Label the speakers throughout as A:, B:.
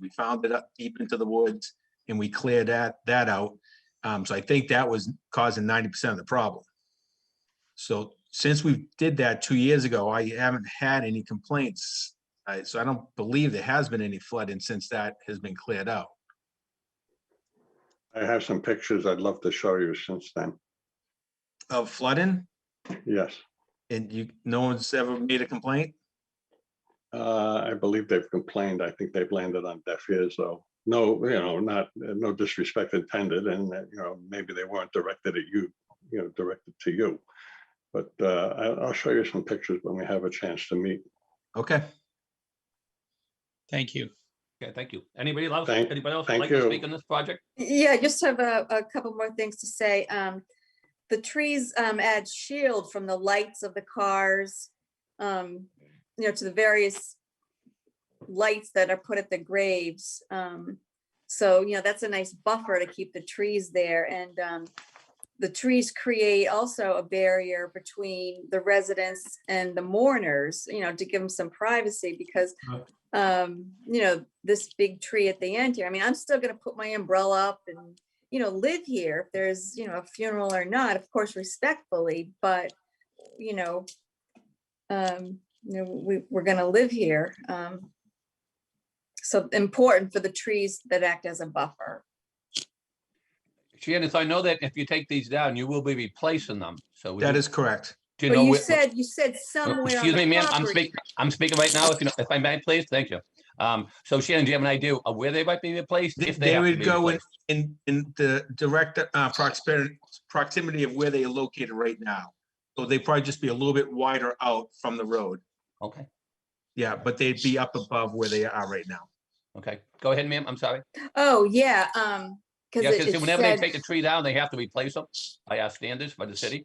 A: We found it up deep into the woods and we cleared that, that out. Um, so I think that was causing ninety percent of the problem. So since we did that two years ago, I haven't had any complaints. I, so I don't believe there has been any flooding since that has been cleared out.
B: I have some pictures I'd love to show you since then.
A: Of flooding
B: Yes,
A: and you, no one's ever made a complaint?
B: Uh, I believe they've complained. I think they've landed on deaf ears, though. No, you know, not, no disrespect intended, and, uh, you know, maybe they weren't directed at you, you know, directed to you. But uh, I- I'll show you some pictures when we have a chance to meet.
A: Okay,
C: Thank you.
D: Okay, thank you. Anybody else,
B: Thank-
D: anybody else
B: thank
D: would like to
B: you.
D: speak on this project?
E: Yeah, I just have a, a couple more things to say. Um, the trees, um, add shield from the lights of the cars, um, you know, to the various lights that are put at the graves. Um, so, you know, that's a nice buffer to keep the trees there and, um, the trees create also a barrier between the residents and the mourners, you know, to give them some privacy because um, you know, this big tree at the end here. I mean, I'm still gonna put my umbrella up and, you know, live here if there's, you know, a funeral or not, of course respectfully, but, you know, um, you know, we, we're gonna live here. Um So important for the trees that act as a buffer.
D: Shannon, so I know that if you take these down, you will be replacing them, so.
A: that is correct.
D: Do you
E: But
D: know?
E: you
D: where-
E: said, you said somewhere on
D: Excuse me,
E: the
D: ma'am, I'm
E: property.
D: speaking, I'm speaking right now, if you, know- if I may, please, thank you. Um, so Shannon, do you have an idea of where they might be replaced?
A: They-
D: If they
A: they
D: have to
A: would
D: be
A: go in-
D: replaced?
A: In, in the direct uh, proximity, proximity of where they are located right now. So they'd probably just be a little bit wider out from the road.
D: Okay,
A: Yeah, but they'd be up above where they are right now.
D: okay, go ahead, ma'am, I'm sorry.
E: Oh, yeah, um, cause
D: Yeah,
E: it
D: because
E: it
D: whenever they take
E: said,
D: a tree down, they have to replace them, by our standards by the city.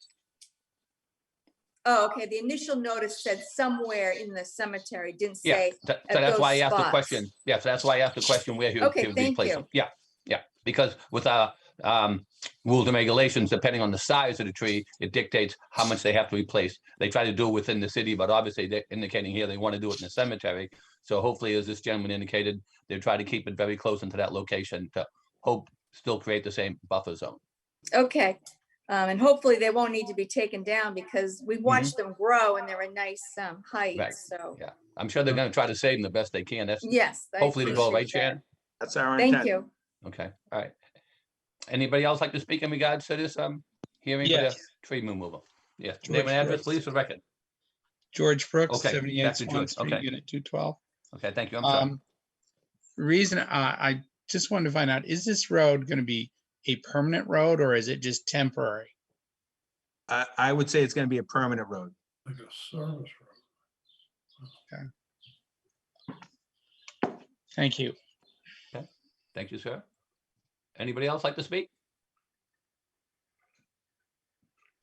E: oh, okay, the initial notice said somewhere in the cemetery, didn't
D: Yeah,
E: say
D: So so
E: at
D: that's why I
E: those
D: asked the
E: spots.
D: question. Yes, that's why I asked the question where he would
E: Okay,
D: he would
E: thank
D: replace
E: you.
D: them. Yeah, yeah, because with our um, rules and regulations, depending on the size of the tree, it dictates how much they have to replace. They try to do it within the city, but obviously they're indicating here they want to do it in the cemetery. So hopefully, as this gentleman indicated, they try to keep it very close into that location to hope, still create the same buffer zone.
E: Okay, um, and hopefully they won't need to be taken down because we watched them grow and they're a nice, um, height,
D: Mm-hmm. Right.
E: so,
D: Yeah. I'm sure they're going to try to save them the best they can. That's
E: yes. Mm. I
D: hopefully to go, right,
E: appreciate that.
D: Sharon?
A: That's our intent.
E: Thank you.
D: Okay, all right. Anybody else like to speak in regards to this, um, hearing for the
C: Yes.
D: tree removal? Yes,
C: George
D: name and
C: Brooks.
D: address, please, for the record.
C: George Brooks,
D: Okay,
C: seventy-eight
D: Dr.
C: Swan
D: George,
C: Street,
D: okay.
C: Unit two twelve.
D: Okay, thank you. I'm sorry.
C: Um, reason, uh, I, I just wanted to find out, is this road gonna be a permanent road or is it just temporary?
A: I, I would say it's gonna be a permanent road.
F: Like a service road.
C: Thank you.
D: Thank you, sir. Anybody else like to speak?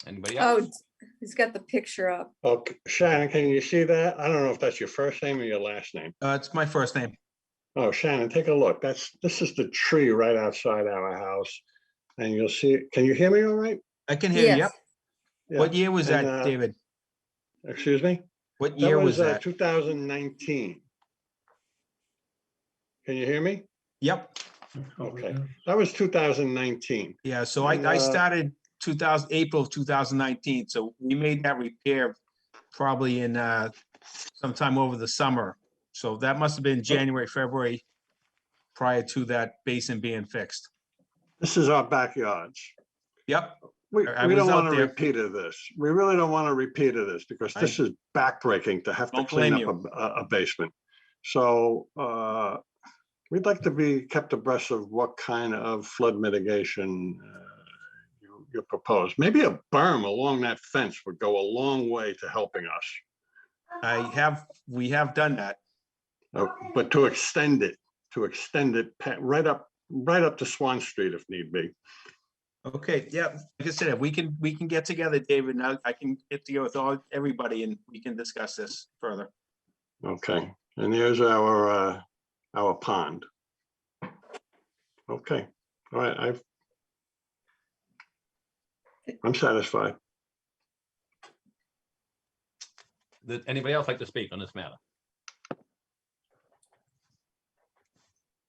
D: Anybody
E: Oh,
D: else?
E: d- he's got the picture up.
B: Okay, Shannon, can you see that? I don't know if that's your first name or your last name.
A: Uh, it's my first name.
B: Oh, Shannon, take a look. That's, this is the tree right outside our house. And you'll see, can you hear me all right?
A: I can hear you.
E: Yes.
A: Yep. What year was
B: And,
A: that,
B: uh,
A: David?
B: Excuse me?
A: What
B: That
A: year was
B: was uh,
A: that?
B: 2019. Can you hear me?
A: Yep. Oh,
B: Okay. That was 2019.
A: Yeah, so I, I
B: Uh,
A: started two thousand, April of two thousand nineteen, so we made that repair probably in, uh, sometime over the summer. So that must have been January, February, prior to that basin being fixed.
B: This is our backyards.
A: Yep,
B: We,
A: I- I
B: we don't
A: was out
B: want to
A: there.
B: repeat of this. We really don't want to repeat of this because
A: I-
B: this is backbreaking to have to
A: Don't
B: clean
A: blame
B: up a, a- a basement. So, uh, we'd like to be kept abreast of what kind of flood mitigation uh, you, you propose. Maybe a berm along that fence would go a long way to helping us,
A: I have, we have done that.
B: Uh, but to extend it, to extend it pa- right up, right up to Swan Street if need be.
A: Okay, yeah, like I said, if we can, we can get together, David, now I can get together with all, everybody and we can discuss this further.
B: Okay, and there's our, uh, our pond. Okay, all right, I've. I'm satisfied.
D: Did anybody else like to speak on this matter?